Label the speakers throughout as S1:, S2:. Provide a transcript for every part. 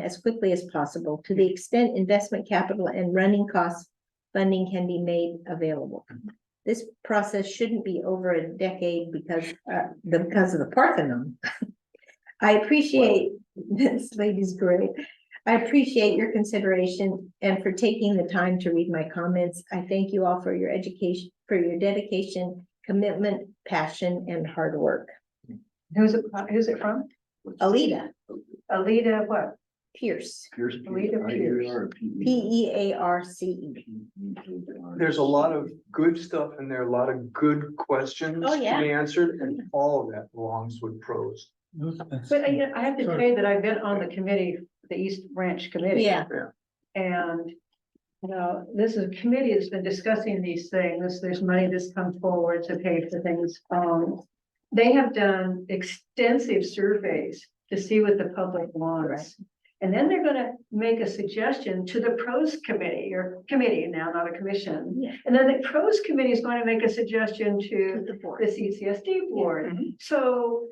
S1: as quickly as possible to the extent investment capital and running costs funding can be made available. This process shouldn't be over a decade because, uh, the- because of the Parthenon. I appreciate, this lady's great. I appreciate your consideration and for taking the time to read my comments. I thank you all for your education, for your dedication, commitment, passion, and hard work.
S2: Who's it, who's it from?
S1: Alita
S2: Alita, what?
S1: Pierce,
S3: Pierce.
S2: Leader
S3: I E R P E.
S1: P E A R C E.
S4: There's a lot of good stuff in there, a lot of good questions
S1: Oh,
S4: to be
S1: yeah.
S4: answered, and all of that belongs with pros.
S2: But I, I have to say that I've been on the committee, the East Ranch Committee.
S1: Yeah,
S2: And, you know, this is, committee has been discussing these things, there's money that's come forward to pay for things. Um, they have done extensive surveys to see what the public
S1: Right.
S2: wants. And then they're gonna make a suggestion to the pros committee, or committee now, not a commission.
S1: yeah.
S2: And then the pros committee is going to make a suggestion to the CCSD board.
S1: mm-hmm.
S2: So,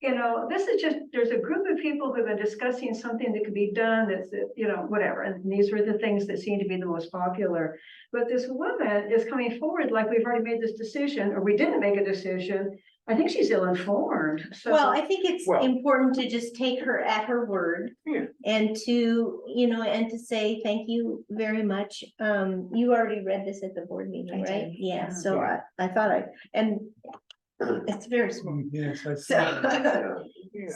S2: you know, this is just, there's a group of people who've been discussing something that could be done, that's, you know, whatever, and these were the things that seem to be the most popular. But this woman is coming forward like we've already made this decision, or we didn't make a decision, I think she's ill-informed, so.
S1: Well, I think it's
S4: Well-
S1: important to just take her at her word.
S4: Yeah.
S1: And to, you know, and to say thank you very much. Um, you already read this at the board meeting,
S2: I did,
S1: right? Yeah,
S2: yeah.
S1: so I, I thought I, and it's very small.
S3: Yes, I
S1: So,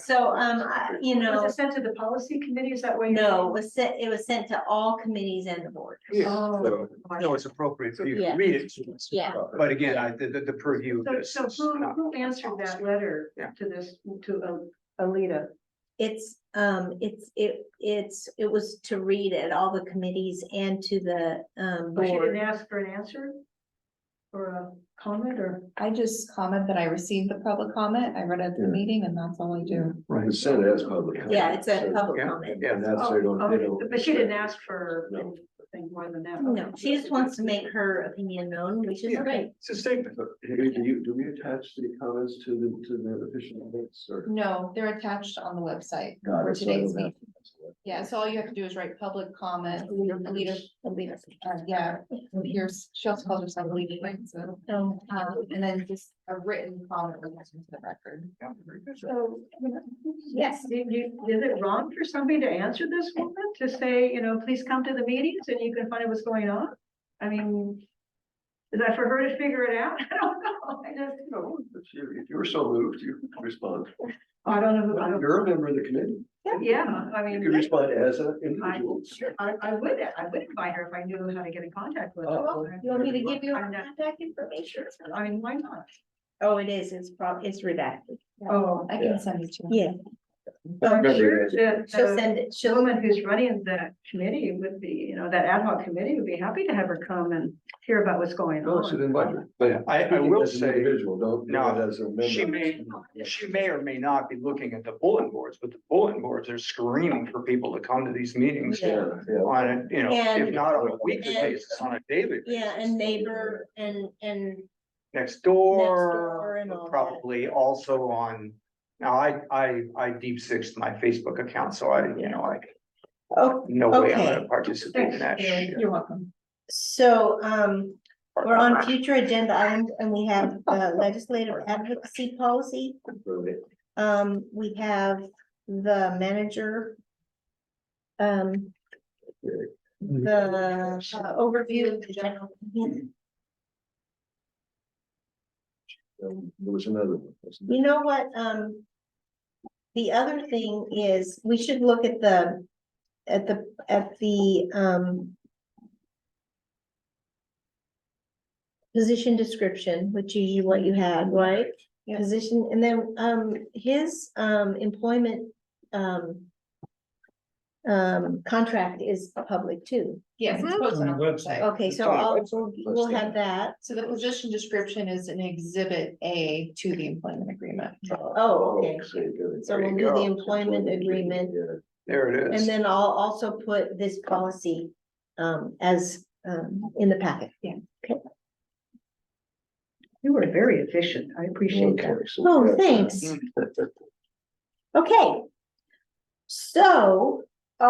S1: so, um, I- you know.
S2: Was it sent to the policy committee, is that where? you-
S1: No, it was sent, it was sent to all committees and the board.
S4: Yeah,
S2: Oh. my
S4: no, it's appropriate for you to
S1: Yeah.
S4: read it,
S1: Yeah.
S4: but again, I, the, the- the purview of
S2: So,
S4: this.
S2: so
S4: is
S2: who,
S4: not-
S2: who answered that letter
S4: Yeah.
S2: to this, to uh, Alita?
S1: It's, um, it's, it, it's, it was to read at all the committees and to the, um,
S2: Or she didn't
S1: board.
S2: ask for an answer? Or a comment, or?
S5: I just comment that I received the public comment. I read it at the
S3: Yeah.
S5: meeting and that's all I do.
S4: Right.
S3: It's said as public. comment,
S1: Yeah, it's a
S3: so-
S1: public
S4: Yeah,
S1: comment.
S4: yeah.
S3: And that's, they don't,
S2: Oh,
S3: they
S2: okay,
S3: don't.
S2: But she didn't ask for
S3: No.
S2: anything more than that.
S1: No,
S2: okay.
S1: she just wants to make her opinion known, which is
S4: Yeah.
S1: great.
S4: It's a statement.
S3: But Do do you, do we attach the comments to the, to the official minutes or?
S5: No, they're attached on the website
S3: Got
S5: for
S3: it, so I
S5: today's
S3: don't have
S5: meeting.
S3: to-
S5: Yeah, so all you have to do is write public comment. Alita,
S1: Alita.
S5: uh, yeah, here's, she also calls herself Alita, right? so,
S1: Um,
S5: um, and then just a written comment was into the record.
S4: Yeah, very good.
S2: So, you know,
S1: Yes.
S2: do you- is it wrong for somebody to answer this woman, to say, you know, please come to the meetings and you can find out what's going on? I mean, is that for her to figure it out? I don't know. I just,
S3: No, if you, if you were so moved, you could respond.
S2: I don't know. who- I don't-
S3: You're a member of the committee.
S2: Yeah, I
S3: You could
S2: mean,
S3: respond as an individual.
S2: I, I would, I would invite her if I knew how to get in contact with
S3: Oh,
S2: her.
S1: You want me to give you her
S2: I'm not-
S1: contact information?
S2: I mean, why not?
S1: Oh, it is, it's prob, it's redacted.
S2: Oh,
S5: I
S3: Yeah.
S5: can send it to you.
S1: Yeah.
S2: I'm
S3: Remember
S2: sure
S3: that.
S2: that. uh,
S1: She'll send it,
S2: The
S1: she'll,
S2: woman who's running that committee would be, you know, that ad hoc committee would be happy to have her come and hear about what's going
S3: No, Oh, so
S2: on.
S3: then, but.
S4: I- I will say-
S3: Individual, don't. do
S4: No,
S3: it As a member.
S4: She may, she may or may not be looking at the bulletin boards, but the bulletin boards are screaming for people to come to these meetings
S1: Yeah.
S3: Yeah, yeah.
S4: on a, you know, if
S1: And-
S4: not on a weekly
S1: and-
S4: basis, on a daily.
S1: yeah,
S4: basis.
S1: and neighbor and, and
S4: next
S1: door
S4: door,
S1: and all that.
S4: probably also on. Now, I, I, I deep sixed my Facebook account, so I, you know, I,
S1: Oh,
S4: no way I'm
S1: Okay.
S4: gonna participate in that
S2: Thanks, Julie.
S4: shit.
S2: You're welcome.
S1: so, um, we're on future agenda items and we have uh, legislative advocacy policy.
S3: Really.
S1: Um, we have the manager. Um. The uh, overview of the general. You
S3: Um, There was another one. wasn't there?
S1: know what, um. The other thing is, we should look at the, at the, at the, um. Position description, which is what you had, right?
S5: Yeah.
S1: Position, and then, um, his, um, employment, um. Um, contract is public too.
S5: Yes, it's posted on the website.
S1: Okay,
S4: It's
S1: so
S4: on our
S1: I'll,
S4: website.
S1: we'll- we'll have that.
S5: So the position description is an exhibit A to the employment agreement.
S1: Oh, okay.
S3: so you go-
S1: So
S4: There
S1: we'll
S4: you
S1: do the
S4: go.
S1: employment agreement,
S3: Yeah.
S4: There it
S1: and
S4: is.
S1: then I'll also put this policy um as um in the packet.
S2: You were very efficient. I appreciate that.
S3: Okay, so uh,
S1: Oh,
S3: that's-
S1: thanks. Okay. So